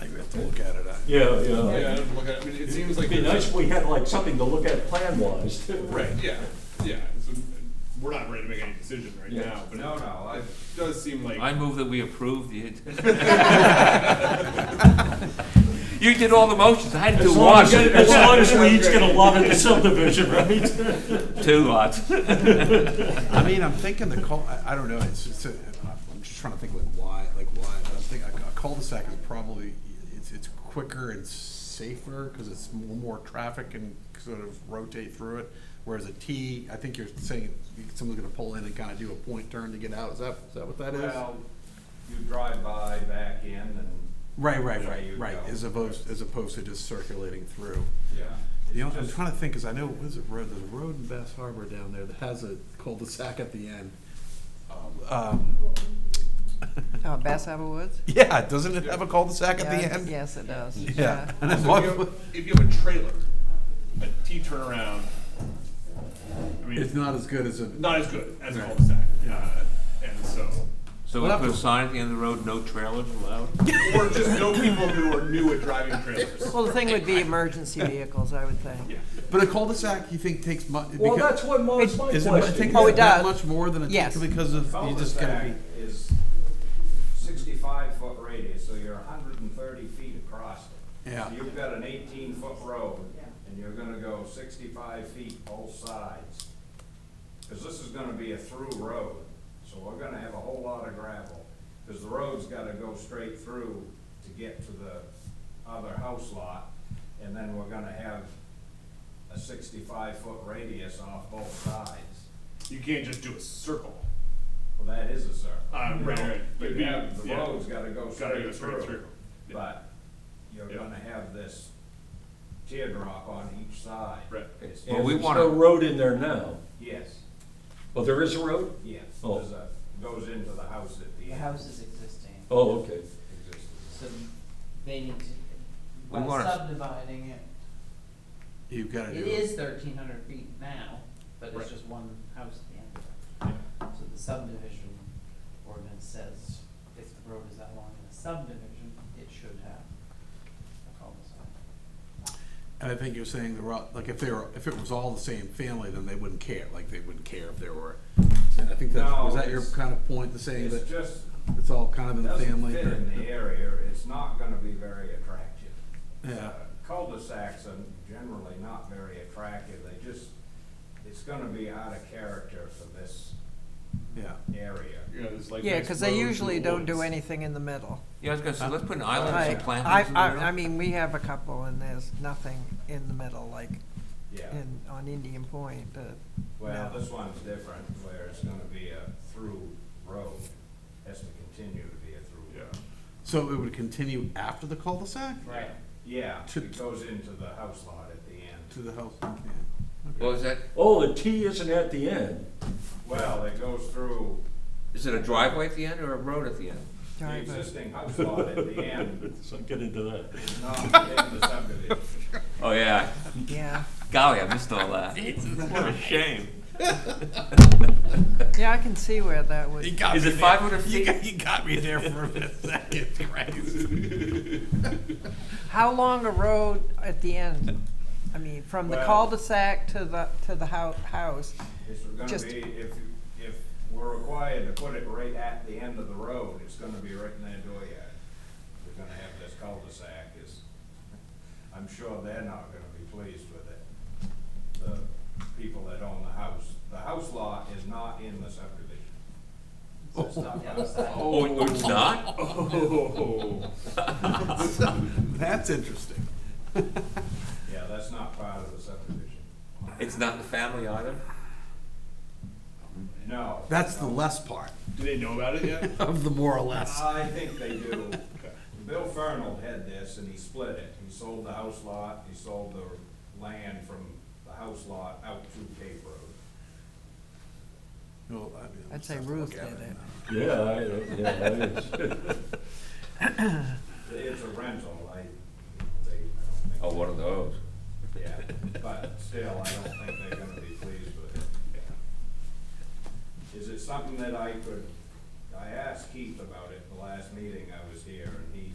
I have to look at it. I- Yeah, Yeah, I yeah. don't look at, I mean, it seems like. It'd be there's- nice if we had like something to look at plan-wise too. Right, yeah, yeah, so, we're not ready to make any decision right Yeah. now, but No, it no, I, does seem like. I move that we approve the. You did all the motions, I had to do As long one. as, as long as we each get a lot of the subdivision, right? Two lots. I mean, I'm thinking the cul, I, I don't know, it's, it's, a- I'm just trying to think like why, like why, but I'm thinking a cul-de-sac is probably, it's, it's quicker and safer, cause it's more, more traffic and sort of rotate through it. Whereas a T, I think you're saying someone's gonna pull in and kinda do a point turn to get out, is that, is that what that is? well, you drive by, back in, and, Right, right, Yeah, right, you right, go. as opposed, as opposed to just circulating through. yeah. You know, It's I'm just- trying to think, cause I know, what is it, road, there's a road in Bass Harbor down there that has a cul-de-sac at the end. Um, Oh, Bass Harbor Woods? yeah, doesn't it have a cul-de-sac at the Yeah, end? Yes, it does. Yeah. And I So if walked- you have- If you have a trailer, a T turnaround, I It's mean, not as good as a, not as good as a Right. cul-de-sac, uh, and so, So we We'll have put a to- sign at the end of the road, no trailers allowed? or just no people who are new at driving trailers. Well, the thing would be emergency vehicles, I would think. Yeah. but a cul-de-sac, you think takes mu- Well, because- that's what my, my Is it, question. take Oh, it that does. much more than a, Yes. because of, you just gotta be. Cul-de-sac is sixty-five foot radius, so you're hundred and thirty feet across it. Yeah. So you've got an eighteen foot road, and you're gonna go sixty-five feet both sides. Cause this is gonna be a through road, so we're gonna have a whole lot of gravel, cause the road's gotta go straight through to get to the other house lot, and then we're gonna have a sixty-five foot radius off both sides. You can't just do a circle. Well, that is a circle. Uh, right, right. It'd be- You have, the yeah. road's gotta go Gotta go straight straight through. through, Yeah. but you're Yeah. gonna have this teardrop on each side. Right. It's- Well, we There's wanna- no road in there now. Yes, Oh, there is a road? yes, Oh. there's a, goes into the house at the The end. house is existing, Oh, okay. Existing. so they need to, We by wanna- subdividing it, You've gotta do it is thirteen hundred feet now, but Right. it's just one house at the end of it. So the subdivision ordinance says if the road is that long in a subdivision, it should have a cul-de-sac. And I think you're saying the, ro- like, if they were, if it was all the same family, then they wouldn't care, like, they wouldn't care if there were. And I think that's, No, was that your it's- kind of point, the saying It's that just, it's all kind of in the doesn't family? fit or- in the area, it's not gonna be very attractive. Uh, Yeah. Cul-de-sacs are generally not very attractive, they just, it's gonna be out of character for this Yeah. area. You know, there's like Yeah, nice because they roads and issually don't do woods. anything in the middle. Yeah, I was gonna say, let's put an island, I, and some I, plantings in the I middle. I mean, we have a couple and there's nothing in the middle, like Yeah. in, on Indian Point, but Well, No. this one's different, where it's gonna be a through road, has to continue to be a through. Yeah. road. So it would continue after the cul-de-sac Right. Yeah, To- it goes into the house lot at the to end. the house? Well, is that, Oh, the T isn't at the end. Well, it goes through is it a driveway at the end or a road at the end? the sorry, but existing house lot at the end, So get into that. it's not in the subdivision. Oh, yeah, yeah. golly, I missed all that. What a shame. Yeah, I can see where that would, got Is it five hundred feet? You got me there for a second, how long a road at the end? I mean, from the Well- cul-de-sac to the, to the hou- house, It's Just- gonna be, if, you- if we're required to put it right at the end of the road, it's gonna be right in their dooryard. We're gonna have this cul-de-sac is, I'm sure they're not gonna be pleased with it. The people that own the house, the house lot is not in the subdivision. So it's not outside. Oh, oh, it's not? Oh. That's interesting. Yeah, that's not part of the subdivision. It's not in the family either? No. That's the no. less part Do they know about it yet? of the more or less. I think they do. Bill Fernald had this and he split it. He sold the house lot, he sold the land from the house lot out to Cape Road. Well, I mean, I'd say I'll Ruth look did at it. Yeah, I, yeah, that is. It's a rental, I, they, I Oh, don't one of those. Oh. think, yeah, but still, I don't think they're gonna be pleased with it. Is it something that I could, I asked Keith about it the last meeting I was here and he